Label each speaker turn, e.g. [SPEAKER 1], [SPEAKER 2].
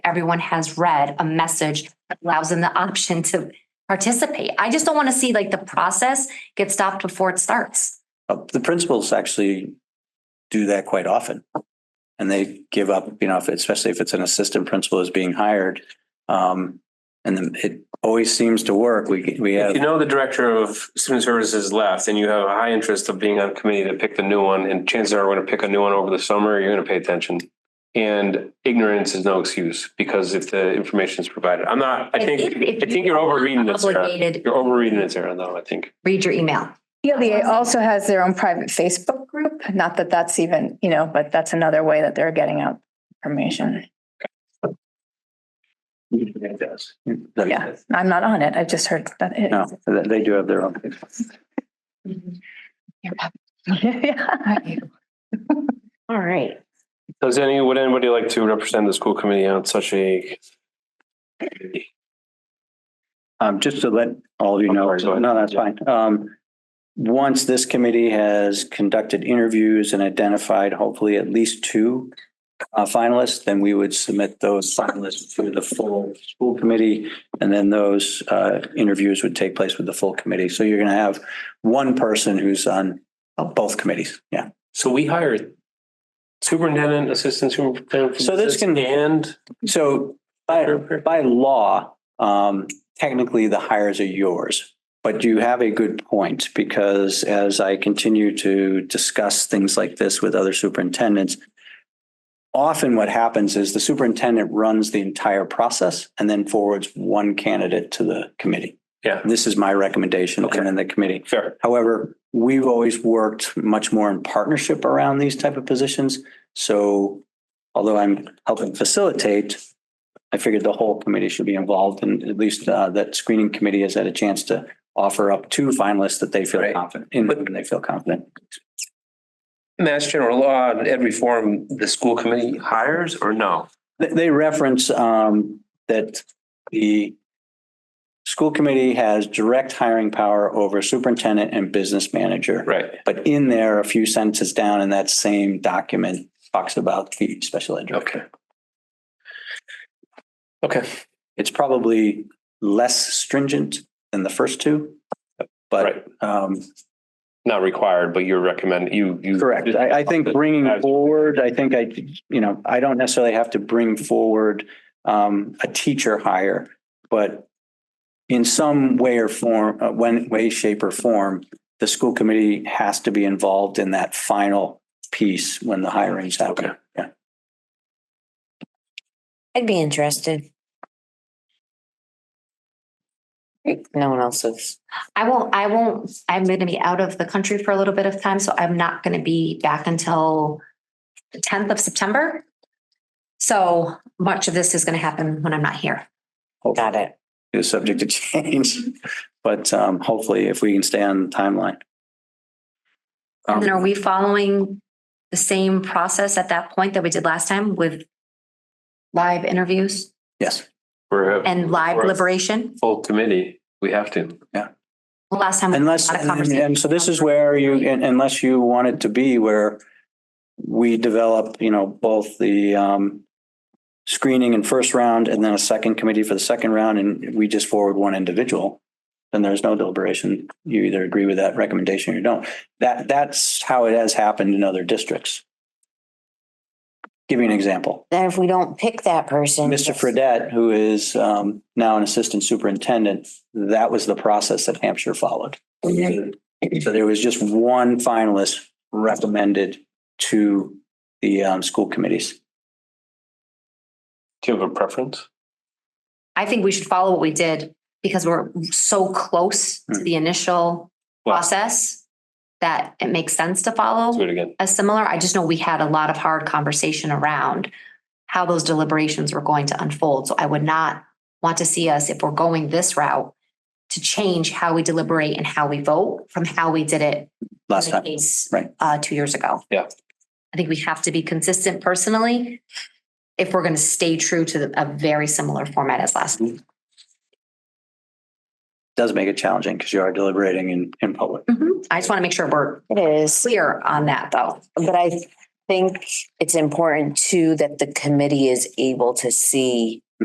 [SPEAKER 1] everyone has read a message that allows them the option to participate. I just don't want to see like the process get stopped before it starts.
[SPEAKER 2] Uh, The principals actually do that quite often. And they give up, you know, if, especially if it's an assistant principal is being hired. Um, and then it always seems to work. We, we
[SPEAKER 3] If
[SPEAKER 2] have,
[SPEAKER 3] you know the director of student services left and you have a high interest of being on committee to pick the new one, and chances are we're gonna pick a new one over the summer, you're gonna pay attention. And ignorance is no excuse because if the information is provided, I'm not, I think, I think you're overreading it, Sarah.
[SPEAKER 1] Obligated,
[SPEAKER 3] You're overreading it, Sarah, though, I think.
[SPEAKER 1] read your email.
[SPEAKER 4] PLEA also has their own private Facebook group. Not that that's even, you know, but that's another way that they're getting out information.
[SPEAKER 3] It does.
[SPEAKER 4] Yeah, I'm not on it. I just heard that. it
[SPEAKER 2] no,
[SPEAKER 4] is.
[SPEAKER 2] they they do have their own.
[SPEAKER 4] Yeah.
[SPEAKER 5] All right.
[SPEAKER 3] Does any, would anybody like to represent the school committee on such a?
[SPEAKER 2] Um, just to let all of you know,
[SPEAKER 3] I'm sorry, go
[SPEAKER 2] no,
[SPEAKER 3] ahead.
[SPEAKER 2] that's fine. Um, once this committee has conducted interviews and identified hopefully at least two uh, finalists, then we would submit those finalists to the full school committee. And then those, uh, interviews would take place with the full committee. So you're going to have one person who's on uh, both committees. Yeah.
[SPEAKER 3] So we hired superintendent, assistant superintendent.
[SPEAKER 2] So this can-
[SPEAKER 3] And.
[SPEAKER 2] So by, by law, um, technically the hires are yours. But you have a good point because as I continue to discuss things like this with other superintendents, often what happens is the superintendent runs the entire process and then forwards one candidate to the committee.
[SPEAKER 3] Yeah.
[SPEAKER 2] This is my recommendation
[SPEAKER 3] Okay.
[SPEAKER 2] and then the committee.
[SPEAKER 3] Fair.
[SPEAKER 2] However, we've always worked much more in partnership around these type of positions. So although I'm helping facilitate, I figured the whole committee should be involved and at least uh, that screening committee has had a chance to offer up two finalists that they feel
[SPEAKER 3] Right.
[SPEAKER 2] confident, in
[SPEAKER 3] But-
[SPEAKER 2] when they feel confident.
[SPEAKER 3] Mass general law, in every form, the school committee hires or no?
[SPEAKER 2] They, they reference um, that the school committee has direct hiring power over superintendent and business manager.
[SPEAKER 3] Right.
[SPEAKER 2] But in there, a few sentences down in that same document talks about the special ed. director.
[SPEAKER 3] Okay. Okay.
[SPEAKER 2] It's probably less stringent than the first two. But um,
[SPEAKER 3] Not required, but you recommend, you, you.
[SPEAKER 2] correct, I, I think bringing forward, I think I, you know, I don't necessarily have to bring forward um, a teacher hire, but in some way or form, uh, when way, shape or form, the school committee has to be involved in that final piece when the hiring's happening.
[SPEAKER 3] Okay.
[SPEAKER 2] Yeah.
[SPEAKER 5] I'd be interested. Great. No one else is.
[SPEAKER 1] I won't, I won't, I'm going to be out of the country for a little bit of time, so I'm not going to be back until the tenth of September. So much of this is going to happen when I'm not here.
[SPEAKER 5] Got it.
[SPEAKER 2] is subject to change. But um, hopefully, if we can stay on the timeline.
[SPEAKER 1] And then
[SPEAKER 2] Um,
[SPEAKER 1] are we following the same process at that point that we did last time with live interviews
[SPEAKER 2] Yes,
[SPEAKER 3] We're a
[SPEAKER 1] and live
[SPEAKER 3] Or-
[SPEAKER 1] deliberation?
[SPEAKER 3] full committee. We have to.
[SPEAKER 1] Well, Last time. we had a
[SPEAKER 2] unless,
[SPEAKER 1] lot of
[SPEAKER 2] and
[SPEAKER 1] conversation.
[SPEAKER 2] and so this is where you, un- unless you want it to be where we develop, you know, both the um, screening and first round and then a second committee for the second round and we just forward one individual, then there's no deliberation. You either agree with that recommendation or you don't. That, that's how it has happened in other districts. Give you an example.
[SPEAKER 5] Then if we don't pick that person.
[SPEAKER 2] Mr. Fredette, who is um, now an assistant superintendent, that was the process that Hampshire followed.
[SPEAKER 5] Mhm.
[SPEAKER 2] So there was just one finalist recommended to the um, school committees.
[SPEAKER 3] Do you have a preference?
[SPEAKER 1] I think we should follow what we did because we're so close to the initial
[SPEAKER 3] Well,
[SPEAKER 1] process that it makes sense to
[SPEAKER 3] let's Do
[SPEAKER 1] follow
[SPEAKER 3] it again.
[SPEAKER 1] a similar. I just know we had a lot of hard conversation around how those deliberations were going to unfold. So I would not want to see us, if we're going this route, to change how we deliberate and how we vote from how we did it
[SPEAKER 2] Last
[SPEAKER 1] the
[SPEAKER 2] time,
[SPEAKER 1] case,
[SPEAKER 2] right.
[SPEAKER 1] Uh, two years ago.
[SPEAKER 3] Yeah.
[SPEAKER 1] I think we have to be consistent personally if we're going to stay true to the- a very similar format as last.
[SPEAKER 2] does make it challenging because you are deliberating in, in public.
[SPEAKER 1] Mhm. I just want to make sure we're
[SPEAKER 5] It is,
[SPEAKER 1] clear on that, though.
[SPEAKER 5] but I, think it's important too that the committee is able to see